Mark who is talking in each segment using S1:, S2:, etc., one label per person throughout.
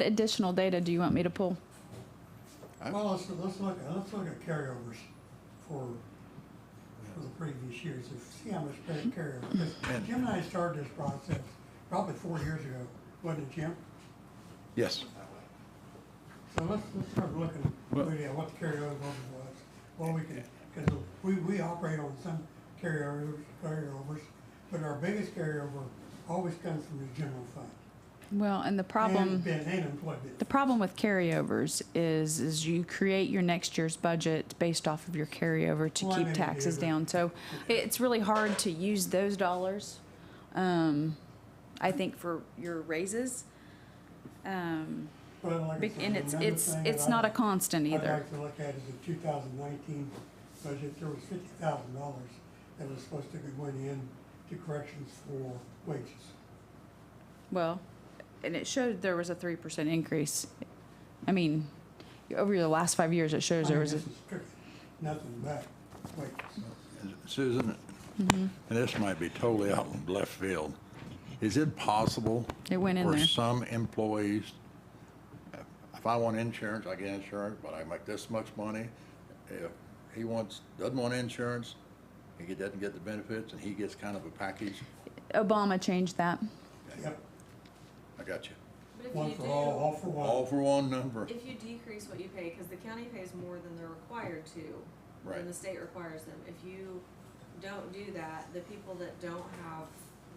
S1: The additional data, do you want me to pull?
S2: Well, let's, let's look, let's look at carryovers for, for the previous years, and see how much better carryover. 'Cause
S3: And-
S2: Jim and I started this process probably four years ago, wasn't it, Jim?
S3: Yes.
S2: So let's, let's start looking,
S3: Well-
S2: really at what the carryover was, what we can, because we, we operate on some carryovers, carryovers, but our biggest carryover always comes from the general fund.
S1: Well, and the
S2: And,
S1: problem,
S2: ben- and employment.
S1: the problem with carryovers is, is you create your next year's budget based off of your carryover to
S2: Well, I know
S1: keep
S2: you
S1: taxes
S2: do, but-
S1: down. So it's really hard to use those dollars, um, I think for your raises. Um,
S2: Well, like I
S1: bec-
S2: said,
S1: and it's,
S2: another
S1: it's,
S2: thing that
S1: it's
S2: I-
S1: not a constant
S2: I'd
S1: either.
S2: like to look at is the two thousand nineteen budget, there was fifty thousand dollars that was supposed to be went in to corrections for wages.
S1: Well, and it showed there was a three percent increase. I mean, over the last five years, it shows
S2: I
S1: there
S2: mean,
S1: was a,
S2: this is strictly Nothing but wages.
S3: Susan,
S1: Mm-hmm.
S3: and this might be totally out in left field, is it possible?
S1: It went in there.
S3: For some employees, if I want insurance, I get insurance, but I make this much money. If he wants, doesn't want insurance, he doesn't get the benefits, and he gets kind of a package.
S1: Obama changed that.
S2: Yep,
S3: I got you.
S4: But if
S2: one
S4: you
S2: for
S4: do,
S2: all, all for
S3: All
S2: one.
S3: for one number.
S4: if you decrease what you pay, because the county pays more than they're required to,
S3: Right.
S4: than the state requires them. If you don't do that, the people that don't have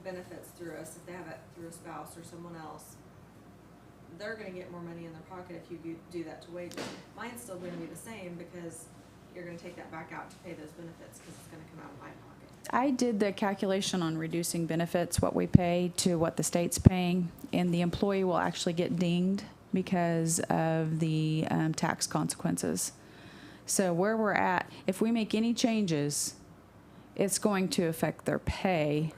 S4: benefits through us, if they have it through a spouse or someone else, they're gonna get more money in their pocket if you do- do that to wages. Mine's still gonna be the same because you're gonna take that back out to pay those benefits because it's gonna come out of my pocket.
S1: I did the calculation on reducing benefits, what we pay to what the state's paying, and the employee will actually get dinged because of the um, tax consequences. So where we're at, if we make any changes, it's going to affect their pay.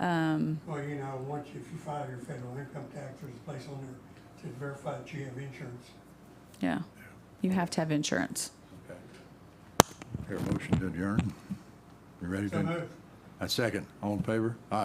S3: Okay.
S2: Well, you know, once you- if you file your federal income tax, there's a place on there to verify that you have insurance.
S1: Yeah. You have to have insurance.
S3: Okay. Here, motion to adjourn. You ready
S2: So
S3: to?
S2: move.
S3: I second. All in favor? Aye.